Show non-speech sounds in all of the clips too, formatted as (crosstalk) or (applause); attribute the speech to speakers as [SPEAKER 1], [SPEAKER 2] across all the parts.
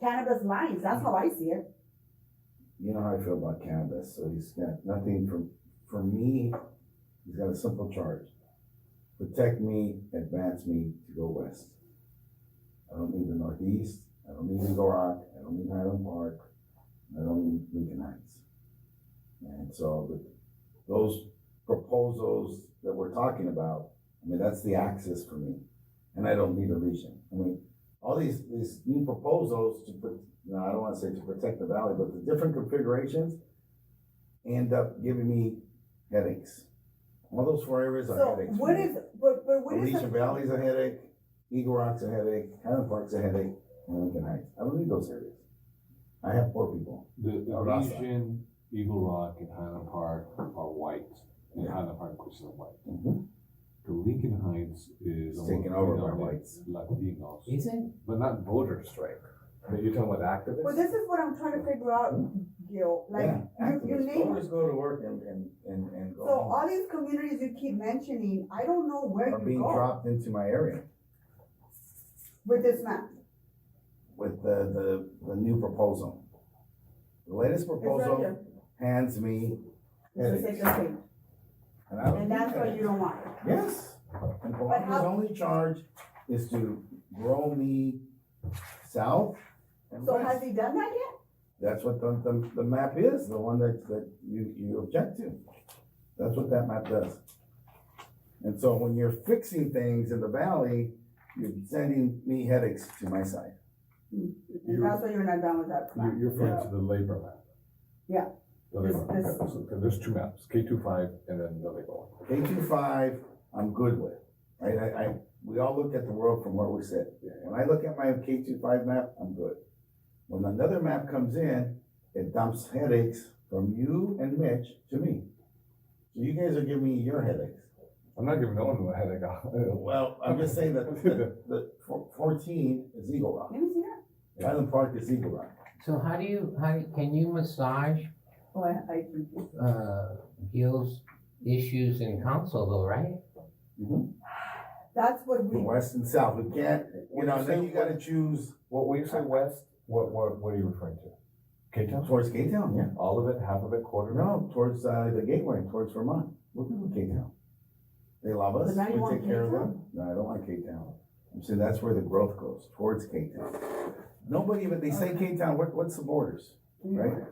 [SPEAKER 1] cannabis lines, that's how I see it.
[SPEAKER 2] you know how I feel about cannabis, so he's got nothing for, for me, he's got a simple charge. Protect me, advance me to go west. I don't need the northeast, I don't need Eagle Rock, I don't need Highland Park, I don't need Lincoln Heights. And so, the- those proposals that we're talking about, I mean, that's the axis for me, and I don't need a region. I mean, all these, these new proposals to put, no, I don't wanna say to protect the valley, but the different configurations end up giving me headaches. All those four areas are
[SPEAKER 1] So
[SPEAKER 2] headaches.
[SPEAKER 1] what is, but, but what is
[SPEAKER 2] Alicia
[SPEAKER 1] the,
[SPEAKER 2] Valley's a headache, Eagle Rock's a headache, Highland Park's a headache, and Lincoln Heights. I don't need those areas. I have poor people.
[SPEAKER 3] The, the
[SPEAKER 2] Arasa.
[SPEAKER 3] region, Eagle Rock and Highland Park are white, and
[SPEAKER 2] Yeah.
[SPEAKER 3] Highland Park, of course, is white.
[SPEAKER 2] Mm-hmm.
[SPEAKER 3] The Lincoln Heights is.
[SPEAKER 2] It's
[SPEAKER 3] almost
[SPEAKER 2] taken over by
[SPEAKER 3] predominantly
[SPEAKER 2] whites.
[SPEAKER 3] Latinos,
[SPEAKER 4] Is it?
[SPEAKER 3] but not voter strike, but you're talking about activists?
[SPEAKER 1] well, this is what I'm trying to figure out, Gil, like,
[SPEAKER 2] Yeah,
[SPEAKER 1] you, you
[SPEAKER 2] activists
[SPEAKER 1] name
[SPEAKER 2] always go to work and, and, and, and go
[SPEAKER 1] So
[SPEAKER 2] home.
[SPEAKER 1] all these communities you keep mentioning, I don't know where
[SPEAKER 2] Are
[SPEAKER 1] you
[SPEAKER 2] being
[SPEAKER 1] go
[SPEAKER 2] dropped into my area.
[SPEAKER 1] with this map.
[SPEAKER 2] with the, the, the new proposal. The latest proposal hands me
[SPEAKER 1] It's the
[SPEAKER 2] headaches.
[SPEAKER 1] same thing.
[SPEAKER 2] And I don't
[SPEAKER 1] And
[SPEAKER 2] need
[SPEAKER 1] that's what you
[SPEAKER 2] headaches.
[SPEAKER 1] don't want.
[SPEAKER 2] Yes, and Palami's
[SPEAKER 1] how-
[SPEAKER 2] only charge is to grow me south and
[SPEAKER 1] So has
[SPEAKER 2] west.
[SPEAKER 1] he done that yet?
[SPEAKER 2] That's what the, the, the map is, the one that, that you, you object to. That's what that map does. And so when you're fixing things in the valley, you're sending me headaches to my side.
[SPEAKER 1] And
[SPEAKER 3] You're,
[SPEAKER 1] that's why you're not done with that
[SPEAKER 3] you're
[SPEAKER 1] plan.
[SPEAKER 3] you're referring to the labor map.
[SPEAKER 1] Yeah.
[SPEAKER 3] The labor,
[SPEAKER 1] This-
[SPEAKER 3] map.
[SPEAKER 1] this-
[SPEAKER 3] Okay, so there's two maps, K two five and then the labor one.
[SPEAKER 2] Eight two five, I'm good with, right? I, I, we all look at the world from where we sit. When I look at my K two five map, I'm good. When another map comes in, it dumps headaches from you and Mitch to me. So you guys are giving me your headaches.
[SPEAKER 3] I'm not giving no one a headache. (laughs)
[SPEAKER 2] Well, I'm just saying that the, the four- fourteen is Eagle Rock.
[SPEAKER 1] Let me see that.
[SPEAKER 2] Highland Park is Eagle Rock.
[SPEAKER 4] So how do you, how, do- can you massage,
[SPEAKER 1] Oh, I, I think it's-
[SPEAKER 4] uh, Gil's issues in council though, right?
[SPEAKER 1] that's what
[SPEAKER 2] The
[SPEAKER 1] we,
[SPEAKER 2] west and south, we can't, you know, then you gotta choose
[SPEAKER 3] What, when you say west, what, what, what are you referring to? K town?
[SPEAKER 2] towards Cape Town, yeah.
[SPEAKER 3] All of it, half of it, quarter of it?
[SPEAKER 2] No, towards, uh, the gateway, towards Vermont. Look at Cape Town. They love us.
[SPEAKER 1] But now you
[SPEAKER 2] We
[SPEAKER 1] want
[SPEAKER 2] take care of
[SPEAKER 1] Cape
[SPEAKER 2] them. No, I don't like Cape Town. I'm saying that's where the growth goes, towards Cape Town. Nobody, but they say Cape Town, what, what's the borders, right?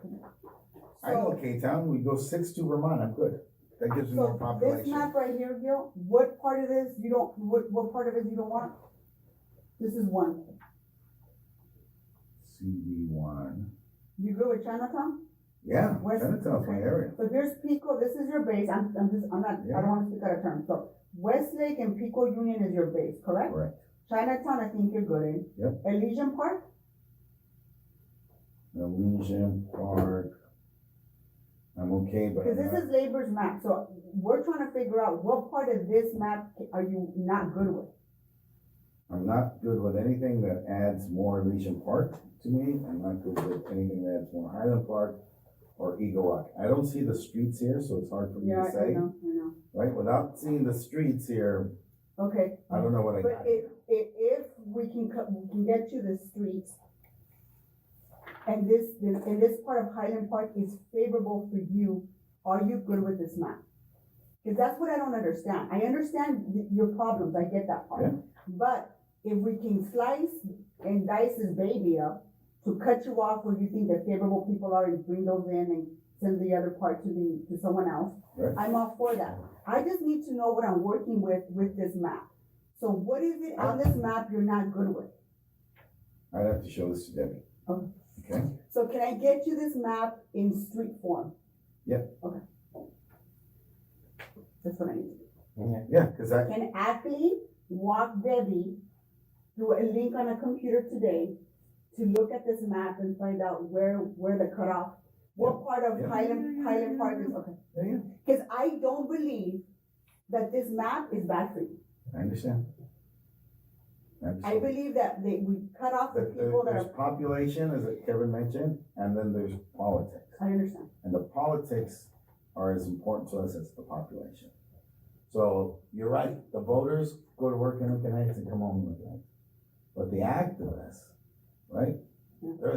[SPEAKER 2] I know
[SPEAKER 1] so,
[SPEAKER 2] Cape Town, we go six to Vermont, I'm good. That gives me more
[SPEAKER 1] so this
[SPEAKER 2] population.
[SPEAKER 1] map right here, Gil, what part of this you don't, what, what part of it you don't want? This is one.
[SPEAKER 2] CD one.
[SPEAKER 1] You go with Chinatown?
[SPEAKER 2] Yeah,
[SPEAKER 1] Where's-
[SPEAKER 2] Chinatown's my area.
[SPEAKER 1] So here's Pico, this is your base, I'm, I'm just, I'm not, I don't wanna speak out of turn, so Westlake and Pico Union is your base, correct?
[SPEAKER 2] Correct.
[SPEAKER 1] Chinatown, I think you're good in.
[SPEAKER 2] Yep. Elysian
[SPEAKER 1] Elysian Park,
[SPEAKER 2] Elysian Park. I'm okay, but
[SPEAKER 1] cause
[SPEAKER 2] I'm
[SPEAKER 1] this
[SPEAKER 2] not,
[SPEAKER 1] is labor's map, so we're trying to figure out what part of this map are you not good with?
[SPEAKER 2] I'm not good with anything that adds more Elysian Park to me. I'm not good with anything that adds more Highland Park or Eagle Rock. I don't see the streets here, so it's hard for me to say,
[SPEAKER 1] know, I know.
[SPEAKER 2] right? Without seeing the streets here,
[SPEAKER 1] Okay,
[SPEAKER 2] I don't know what I
[SPEAKER 1] but
[SPEAKER 2] got.
[SPEAKER 1] if, if, if we can co- we can get to the streets, and this, and this part of Highland Park is favorable for you, are you good with this map? Cause that's what I don't understand, I understand y- your problems, I get that part,
[SPEAKER 2] Yeah.
[SPEAKER 1] but if we can slice and dice this baby up to cut you off where you think the favorable people are and bring those in and send the other part to the, to someone else,
[SPEAKER 2] Right.
[SPEAKER 1] I'm all for that, I just need to know what I'm working with, with this map. So what is it on this map you're not good with?
[SPEAKER 2] I'd have to show this to Debbie.
[SPEAKER 1] Okay.
[SPEAKER 2] Okay?
[SPEAKER 1] So can I get you this map in street form?
[SPEAKER 2] Yeah.
[SPEAKER 1] Okay. That's what I need.
[SPEAKER 2] Yeah, because I,
[SPEAKER 1] Can Ashley walk Debbie through a link on a computer today to look at this map and find out where, where the cutoff, what part
[SPEAKER 2] Yeah.
[SPEAKER 1] of Highland, Highland Park is, okay?
[SPEAKER 2] yeah, yeah,
[SPEAKER 1] Cause I don't believe that this map is bad for you.
[SPEAKER 2] I understand.
[SPEAKER 1] I
[SPEAKER 2] Absolutely.
[SPEAKER 1] believe that they, we cut off the
[SPEAKER 2] There- there-
[SPEAKER 1] people that
[SPEAKER 2] uh, There's
[SPEAKER 1] are,
[SPEAKER 2] population, as Kevin mentioned, and then there's politics.
[SPEAKER 1] I understand.
[SPEAKER 2] And the politics are as important to us as the population. So you're right, the voters go to work in Lincoln Heights and come home in Lincoln Heights. But the activists, right,